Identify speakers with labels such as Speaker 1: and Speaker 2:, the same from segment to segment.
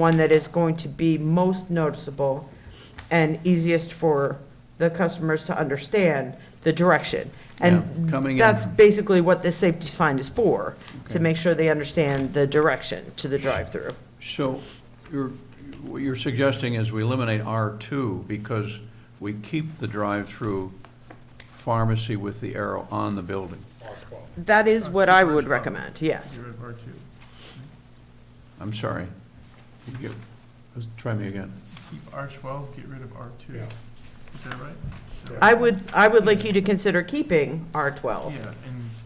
Speaker 1: one that is going to be most noticeable and easiest for the customers to understand the direction.
Speaker 2: Yeah, coming in.
Speaker 1: And that's basically what this safety sign is for, to
Speaker 2: Okay.
Speaker 1: make sure they understand the direction to the drive-through.
Speaker 2: So you're, what you're suggesting is we eliminate R2 because we keep the drive-through pharmacy with the arrow on the building.
Speaker 1: That is what I would recommend, yes.
Speaker 3: You're at R2.
Speaker 2: I'm sorry. You- Let's try me again.
Speaker 3: Keep R12, get rid of R2.
Speaker 4: Yeah.
Speaker 3: Is that right? Is that
Speaker 1: I
Speaker 3: right?
Speaker 1: would, I would like you to consider keeping R12.
Speaker 3: Yeah, and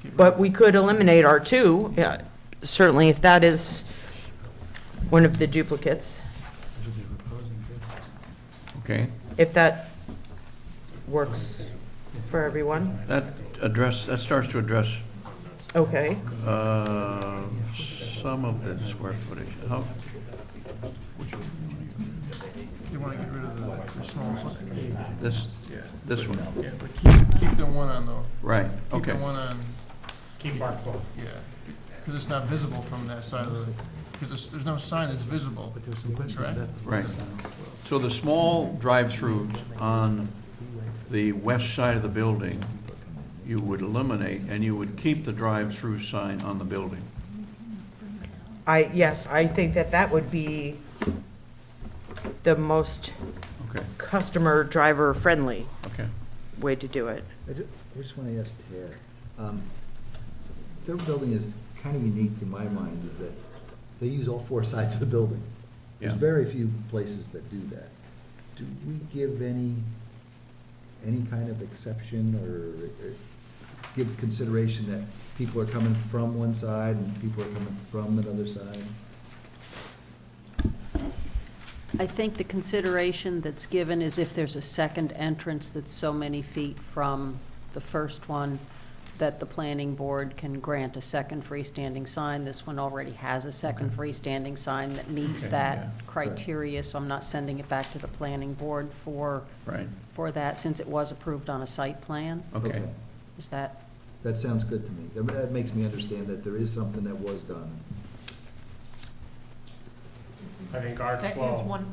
Speaker 3: get rid
Speaker 1: But
Speaker 3: of,
Speaker 1: we could eliminate R2, yeah, certainly if that is one of the duplicates,
Speaker 2: Okay?
Speaker 1: if that works for everyone.
Speaker 2: That address, that starts to address
Speaker 1: Okay,
Speaker 2: uh, some of the square footage. How-
Speaker 3: you want to get rid of the the small one.
Speaker 2: This, this one,
Speaker 3: Yeah, but keep, keep the one on though.
Speaker 2: right,
Speaker 3: Keep the
Speaker 2: okay.
Speaker 3: one on,
Speaker 4: Keep R twelve.
Speaker 3: yeah, because it's not visible from that side of the, because there's no sign that's visible. But there's some questions
Speaker 2: Right. So the small drive-throughs on the west side of the building, you would eliminate, and you would keep the drive-through sign on the building.
Speaker 1: I, yes, I think that that would be the most
Speaker 2: Okay,
Speaker 1: customer driver friendly
Speaker 2: okay.
Speaker 1: way to do it.
Speaker 5: I ju- I just want to ask Ted, um, their building is kind of unique in my mind, is that they use all four sides of the building. There's
Speaker 2: Yeah.
Speaker 5: very few places that do that. Do we give any, any kind of exception or uh, give consideration that people are coming from one side and people are coming from another side?
Speaker 6: I think the consideration that's given is if there's a second entrance that's so many feet from the first one, that the planning board can grant a second freestanding sign. This one already has a second freestanding sign that meets
Speaker 2: Okay, yeah.
Speaker 6: that criteria, so I'm not sending it back to the planning board for,
Speaker 2: Right,
Speaker 6: for that, since it was approved on a site plan.
Speaker 2: okay.
Speaker 6: Is that,
Speaker 5: That sounds good to me. That- That makes me understand that there is something that was done.
Speaker 4: I think R
Speaker 7: That is
Speaker 4: twelve.
Speaker 7: one,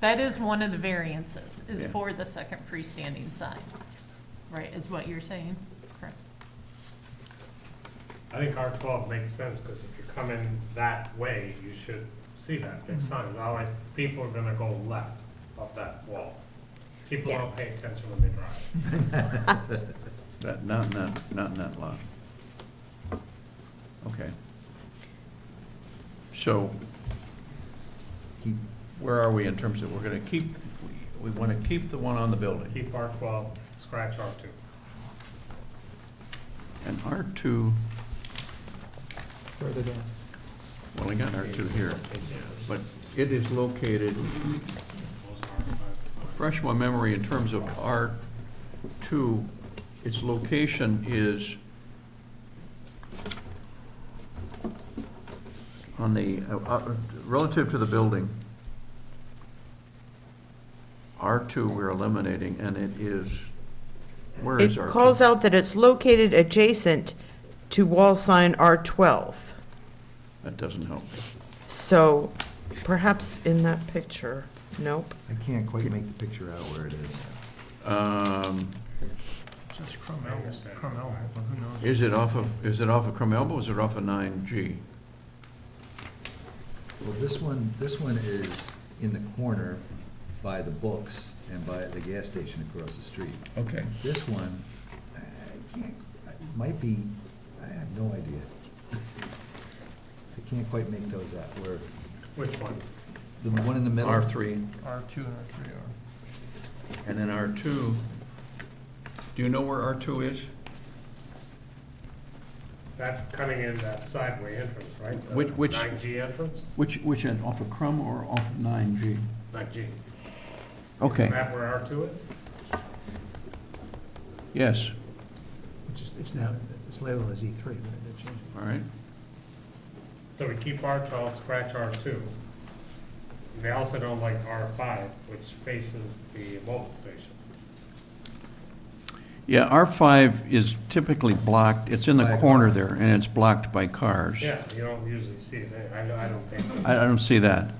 Speaker 7: that is one of the variances, is
Speaker 2: Yeah.
Speaker 7: for the second freestanding sign, right, is what you're saying? Correct.
Speaker 4: I think R twelve makes sense, because if you're coming that way, you should see that
Speaker 7: Mm-hmm.
Speaker 4: big sign, otherwise people are gonna go left of that wall. People don't pay attention when they drive.
Speaker 2: That, not, in that, not in that lot. Okay. So
Speaker 5: Keep,
Speaker 2: where are we in terms of, we're gonna keep, we wanna keep the one on the building?
Speaker 4: Keep R twelve, scratch R two.
Speaker 2: And R2,
Speaker 3: Further down.
Speaker 2: well, I got R2 here, but it is located refresh my memory in terms of R2, its location is on the, uh, uh, relative to the building, R2 we're eliminating, and it is, where is
Speaker 1: It
Speaker 2: R2?
Speaker 1: calls out that it's located adjacent to wall sign R12.
Speaker 2: That doesn't help.
Speaker 1: So perhaps in that picture, nope.
Speaker 5: I can't quite make the picture out where it is.
Speaker 2: Um,
Speaker 3: Just Cromwell, Cromwell, but who knows?
Speaker 2: Is it off of, is it off of Crum Elbow, or is it off of 9G?
Speaker 5: Well, this one, this one is in the corner by the books and by the gas station across the street.
Speaker 2: Okay.
Speaker 5: This one, I can't, I- might be, I have no idea. I can't quite make those out, where,
Speaker 4: Which one?
Speaker 5: the one in the middle.
Speaker 2: R3.
Speaker 3: R2 and R3 are.
Speaker 2: And then R2, do you know where R2 is?
Speaker 4: That's coming in that sideway entrance, right? The
Speaker 2: Which- which-
Speaker 4: Nine G entrance?
Speaker 2: Which, which end, off of Crum or off of 9G?
Speaker 4: Nine G.
Speaker 2: Okay,
Speaker 4: Is that where R two is?
Speaker 2: yes,
Speaker 8: Which is, it's now, it's labeled as E3, E but it changed.
Speaker 2: all right.
Speaker 4: So we keep R twelve, scratch R two. They also don't like R five, which faces the mobile station.
Speaker 2: Yeah, R5 is typically blocked, it's in
Speaker 5: By
Speaker 2: the
Speaker 5: a
Speaker 2: corner there, and it's blocked by cars.
Speaker 4: Yeah, you don't usually see it, there. I, I don't think so.
Speaker 2: I I don't see that.